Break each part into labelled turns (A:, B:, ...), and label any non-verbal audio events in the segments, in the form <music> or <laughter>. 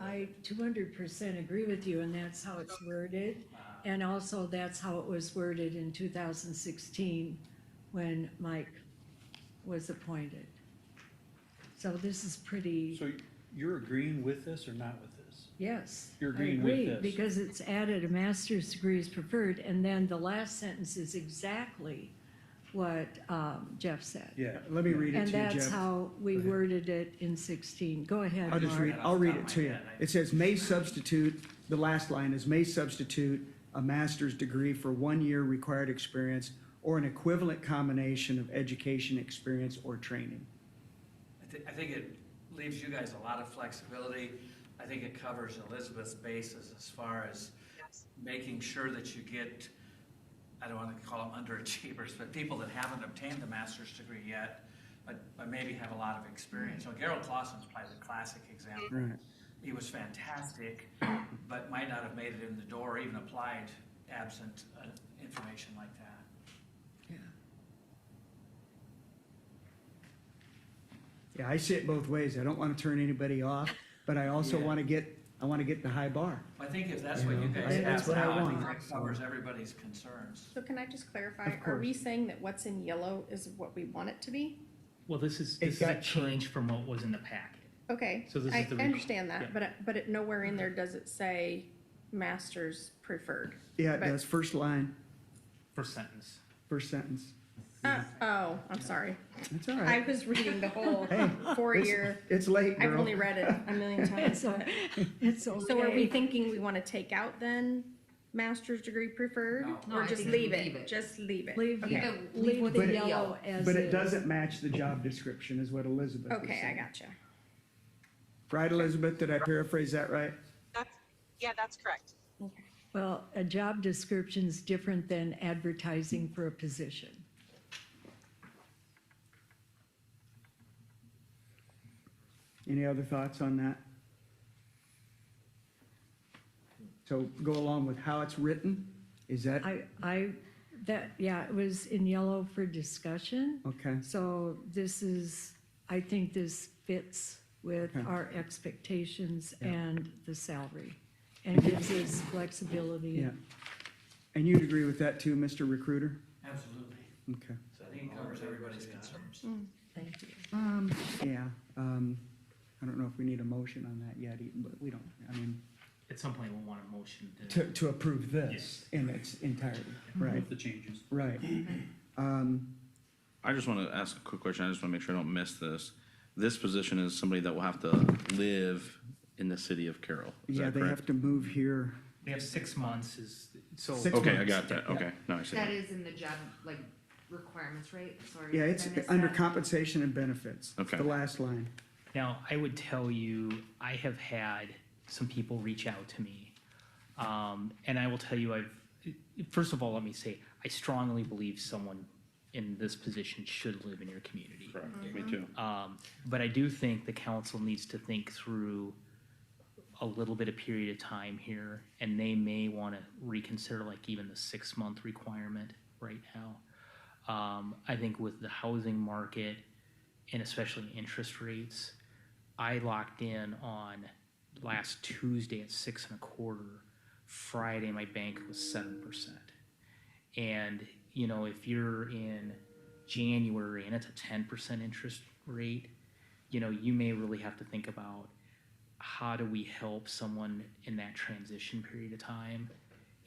A: I two hundred percent agree with you, and that's how it's worded.
B: uh,
A: And also, that's how it was worded in two thousand sixteen, when Mike was appointed. So this is pretty,
C: So you're agreeing with this or not with this?
A: yes.
C: You're
A: I
C: agreeing with
A: agree,
C: this.
A: Because it's added, a master's degree is preferred, and then the last sentence is exactly what um, Jeff said.
C: Yeah.
D: Let me read it
A: And
D: to you,
A: that's
D: Jeff.
A: how we
D: Go ahead.
A: worded it in sixteen. Go ahead,
D: I'll just
A: Mark.
D: read, I'll read it to you. It says, "May substitute," the last line is, "May substitute a master's degree for one year required experience or an equivalent combination of education, experience, or training."
B: I thi- I think it leaves you guys a lot of flexibility. I think it covers Elizabeth's bases as far as making sure that you get, I don't want to call them underachievers, but people that haven't obtained the master's degree yet, but, but maybe have a lot of experience. So Gerald Clausen's probably the classic example.
D: Right.
B: He was fantastic, but might not have made it in the door or even applied absent uh, information like that.
D: Yeah, I see it both ways. I don't want to turn anybody off, but I also
B: Yeah.
D: want to get, I want to get the high bar.
B: I think if that's what you
D: Yeah.
B: guys
D: That's
B: have
D: what I
B: now, I
D: want.
B: think that covers everybody's concerns.
E: So can I just clarify,
D: Of
E: are we saying that what's in yellow is what we want it to be?
F: Well, this is,
D: It
F: this is a
D: got
F: change from what was in the packet.
E: Okay,
F: So this
E: I
F: is the
E: I
F: requ-
E: understand
F: yeah.
E: that, but, it- but it, nowhere in there does it say masters preferred.
D: Yeah, it
E: But-
D: does. First line,
F: First sentence.
D: first sentence.
E: Uh, oh, I'm sorry.
D: That's all
E: I
D: right.
E: was reading the whole
D: <laughs> Hey, it's- <laughs>
E: four-year,
D: It's late,
E: I've
D: girl.
E: only read it a million times.
A: <laughs> It's, o- it's okay.
E: So are we thinking we want to take out then master's degree preferred?
B: No.
G: No,
E: Or
G: I
E: just
G: think
E: leave
G: leave
E: it,
G: it.
E: just leave it?
A: Leave,
E: Okay,
G: Yeah. Leave
A: leave
G: with
D: the
A: the yellow
G: yellow.
A: as is.
D: But it doesn't match the job description is what Elizabeth was
E: okay, I
D: saying.
E: gotcha.
D: Right, Elizabeth? Did I paraphrase that right?
H: That's, yeah, that's correct.
A: Well, a job description's different than advertising for a position.
D: Any other thoughts on that? So go along with how it's written? Is that,
A: I, I, that, yeah, it was in yellow for discussion.
D: okay,
A: So this is, I think this fits with our expectations and the salary and gives us flexibility.
D: yeah. And you'd agree with that too, Mr. Recruiter?
B: Absolutely.
D: Okay,
B: So I think it covers everybody's concerns.
A: Thank you.
D: yeah. um, I don't know if we need a motion on that yet, e- but we don't, I mean,
F: At some point, we'll want a motion to,
D: to, to approve this in its entirety, Mm-hmm. right,
C: With the changes.
D: right. Um,
I: I just want to ask a quick question. I just want to make sure I don't miss this. This position is somebody that will have to live in the city of Carroll. Is
D: Yeah,
I: that
D: they have
I: correct?
D: to move here.
F: they have six months is, so.
D: Six
I: Okay, I
D: months.
I: got that.
D: Yeah.
I: Okay, now I see
G: That
I: that.
G: is in the job, like, requirements, right? Sorry.
D: Yeah,
G: did
D: it's
G: I miss
D: under
G: that?
D: compensation and benefits. It's
I: Okay.
D: The last line.
F: Now, I would tell you, I have had some people reach out to me. Um, and I will tell you, I've, first of all, let me say, I strongly believe someone in this position should live in your community.
I: Correct. Me too.
F: Um, but I do think the council needs to think through a little bit of period of time here, and they may want to reconsider like even the six-month requirement right now. Um, I think with the housing market and especially interest rates, I locked in on last Tuesday at six and a quarter. Friday, my bank was seven percent. And, you know, if you're in January and it's a 10% interest rate, you know, you may really have to think about how do we help someone in that transition period of time?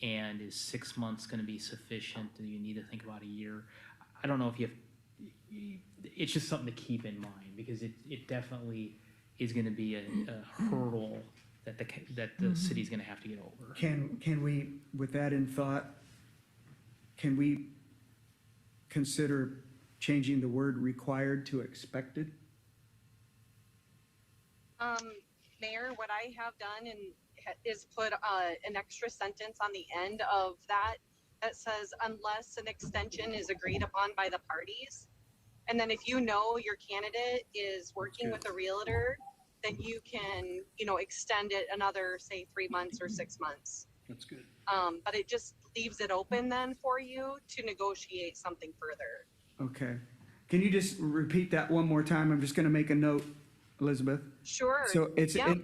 F: And is six months going to be sufficient? Do you need to think about a year? I don't know if you have, it's just something to keep in mind because it, it definitely is going to be a, a hurdle that the, ca- that the city's going to have to get over.
D: Can, can we, with that in thought, can we consider changing the word required to expected?
H: Um, Mayor, what I have done and ha- is put, uh, an extra sentence on the end of that that says unless an extension is agreed upon by the parties. And then if you know your candidate is working with a realtor, then you can, you know, extend it another, say, three months or six months.
C: That's good.
H: Um, but it just leaves it open then for you to negotiate something further.
D: Okay. Can you just repeat that one more time? I'm just gonna make a note, Elizabeth.
H: Sure.
D: So it's,
H: Yeah.
D: it-